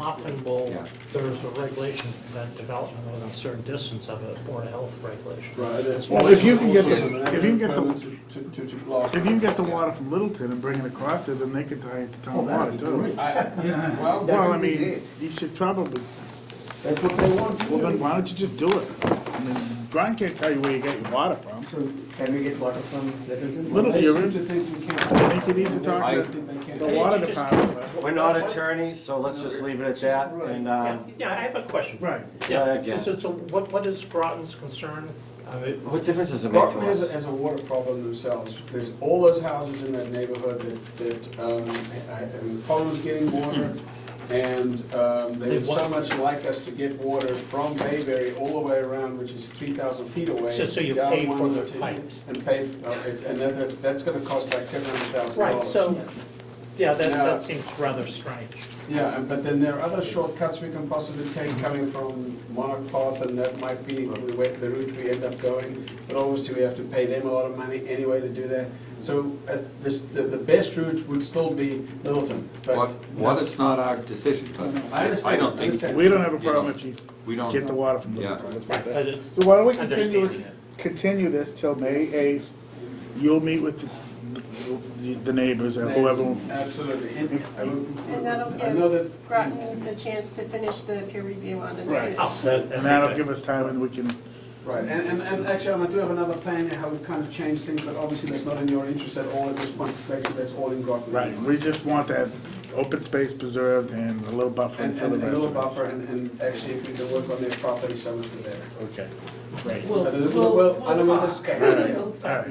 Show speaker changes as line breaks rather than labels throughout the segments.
often will,
Yeah.
there's a regulation to prevent development within a certain distance of a Board of Health regulation.
Right, that's.
Well, if you can get the-
Also,
if you can get the-
requirement To, to, to blast.
If you can get the water from Littleton and bring it across there, then they could tie it to
Oh,
town water too.
I- Well,
Well, I
That'd be
mean,
great.
you should probably,
That's what they want to
well, then
do.
why don't you just do it? I mean, Brian can't tell you where you get your water from.
So can we get water from Littleton?
Little-
they seem to think we can't.
I think you need to talk
They
to
think they can't.
the water department.
We're not attorneys, so let's just leave it at that, and,
Yeah,
uh,
Yeah, I have a question.
Right.
Yeah,
Yeah,
again.
so, so- so what, what is Groton's concern? I mean,
what difference does it make
Groton
to
has,
us?
has a water problem themselves. There's all those houses in that neighborhood that, that, um, have problems getting water. And, um, they
They
would so
want-
much like us to get water from Bayberry all the way around, which is three thousand feet away.
So- so you
down
pay for
102,
the pipes.
And pay, uh, it's, and that- that's, that's gonna cost like seven hundred thousand dollars.
Right, so, yeah, that,
Now-
that seems rather strange.
Yeah, and- but then there are other shortcuts we can possibly take coming from Monarch Path, and that might be the way, the route we end up going. But obviously, we have to pay them a lot of money anyway to do that. So uh, this, the, the best route would still be Littleton,
What,
but.
what is not our decision, but
I understand,
I don't
I
think,
understand.
We don't have a problem if you
we don't.
get the water from
Yeah.
Littleton. That's
Right,
not bad.
but it's-
So why don't we continue,
Understanding
continue this till May eighth? You'll meet with the- the, the neighbors and whoever.
Absolutely. And-
And that'll
I know that,
give Groton the chance to finish the peer review on the
Right.
drainage.
Oh, that-
And that'll
okay.
give us time and we can,
right, and, and, and actually, I do have another plan how we kind of change things, but obviously, that's not in your interest at all at this point. Basically, that's all in Groton.
right, we just want that open space preserved and a little buffer
And,
for
and
the
a little
residents.
buffer, and, and actually, if we can work on their property, so much the better.
Okay, great.
We'll-
Well,
we'll-
well, I don't
we'll
want to
talk.
discuss.
We'll
All
talk.
right.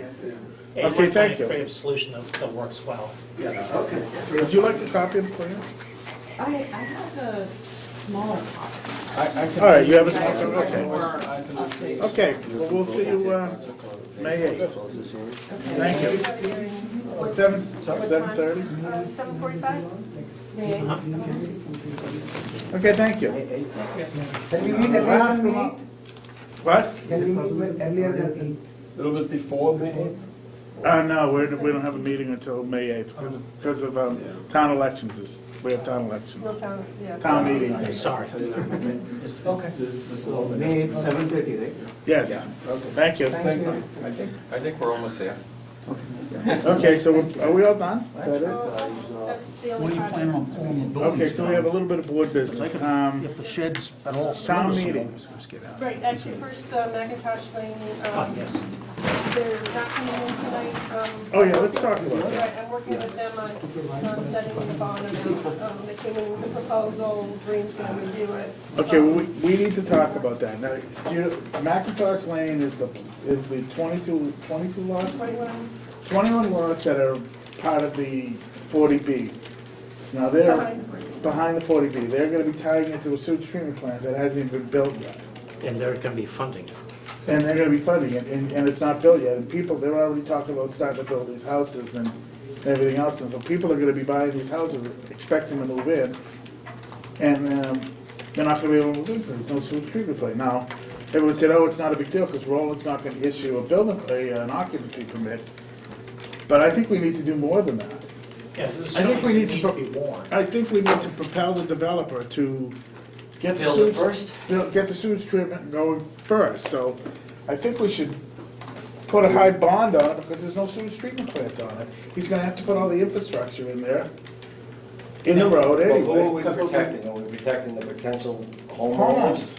Hey,
Okay,
one
thank you.
creative solution that, that works well.
Yeah, yeah, okay.
Would you like a copy of the plan?
I, I have a smaller copy.
All right, you have a copy, okay.
okay.
Okay, well, we'll see you, uh, May eighth. Thank you. Seven, seven thirty?
Um, Seven forty-five?
Okay, thank you.
Can we meet earlier
Last
than
but not- What?
eight? Can we meet earlier than eight?
A little bit before May.
Uh, no, we're, we don't have a meeting until May eighth, because of, um, town elections, this, we have town
We'll
elections.
tell, yeah.
Town meeting,
I'm sorry.
Okay. May seven thirty, right?
yes, thank you.
Thank you.
I think, I think we're almost there.
Okay, so we're- are we all done? Is that it?
Oh, That's the only project.
Okay, so we have a little bit of board business, um,
If the sheds at all.
town meeting.
Right, actually, first, the McIntosh Lane,
Ah,
um,
yes.
they're not coming in tonight. um,
Oh, yeah, let's talk about that.
Right, I'm working with them on, on setting the bond amount. Um, They came in with a proposal, Green's gonna review it.
Okay, well, we, we need to talk about that. Now, do you, McIntosh Lane is the, is the 22 22
Um,
lots?
Twenty-one,
Twenty-one lots that are part of the forty B. Now, they're
Behind the 40B.
behind the forty B. They're gonna be tying into a sewage treatment plant that hasn't even been built yet.
And they're gonna be funding it.
And they're gonna be funding it, and, and it's not built yet, and people, they're already talking about starting to build these houses and everything else, and so people are gonna be buying these houses, expecting to move in, and, um, they're not gonna be able to move in, because there's no sewage treatment plant. Now, everyone said, oh, it's not a big deal, because Roland's not gonna issue a building, a, an occupancy permit, but I think we need to do more than that.
Yeah, this is
I think we
something
need
that
to
need to
pro-
be warned.
I think we need to propel the developer to get the
Build
sewage.
it first?
build- Get the sewage treatment going first, so I think we should put a high bond on it because there's no sewage treatment plant on it. He's gonna have to put all the infrastructure in there, in the road
Well, who are
anyway.
we protecting? Are we protecting the potential homeowners?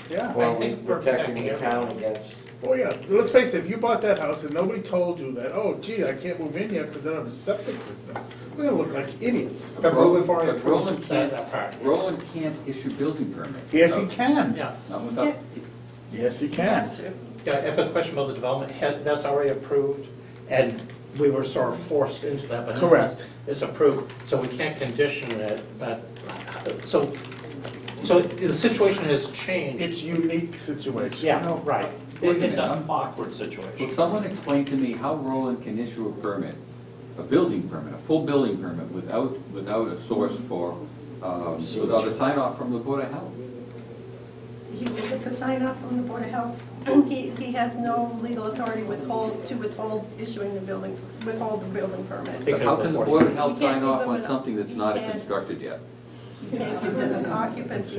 Homeowners, yeah.
Or
I
are we
think we're
protecting the
protecting
town against?
Oh, yeah, let's face it, if you bought that house and nobody told you that, oh gee, I can't move in yet because I don't have a septic system, we're gonna look like idiots.
But Roland but Roland
That,
can't,
that part.
Roland can't issue building permits. Uh,
Yes,
Oh.
he can,
Yeah.
Not without,
yes, he can.
Yeah, I have a question about the development, Had- that's already approved, and we were sort of forced into that, but now it's-
Correct.
It's approved, so we can't condition it, but, uh, so, so the situation has changed.
It's unique situation.
Yeah, right. It- It's an
I'm-
awkward
will
situation.
someone explain to me how Roland can issue a permit, a building permit, a full building permit without, without a source for, um, without a sign off from the Board of Health?
He will get the sign off from the Board of Health. He, he has no legal authority withhold, to withhold issuing the building, withhold the building permit.
But
Because
how
the
can the
40
Board of Health
You can't
sign
give
off
them
on
an-
something that's
you
not
can't.
constructed yet?
He can't give them an occupancy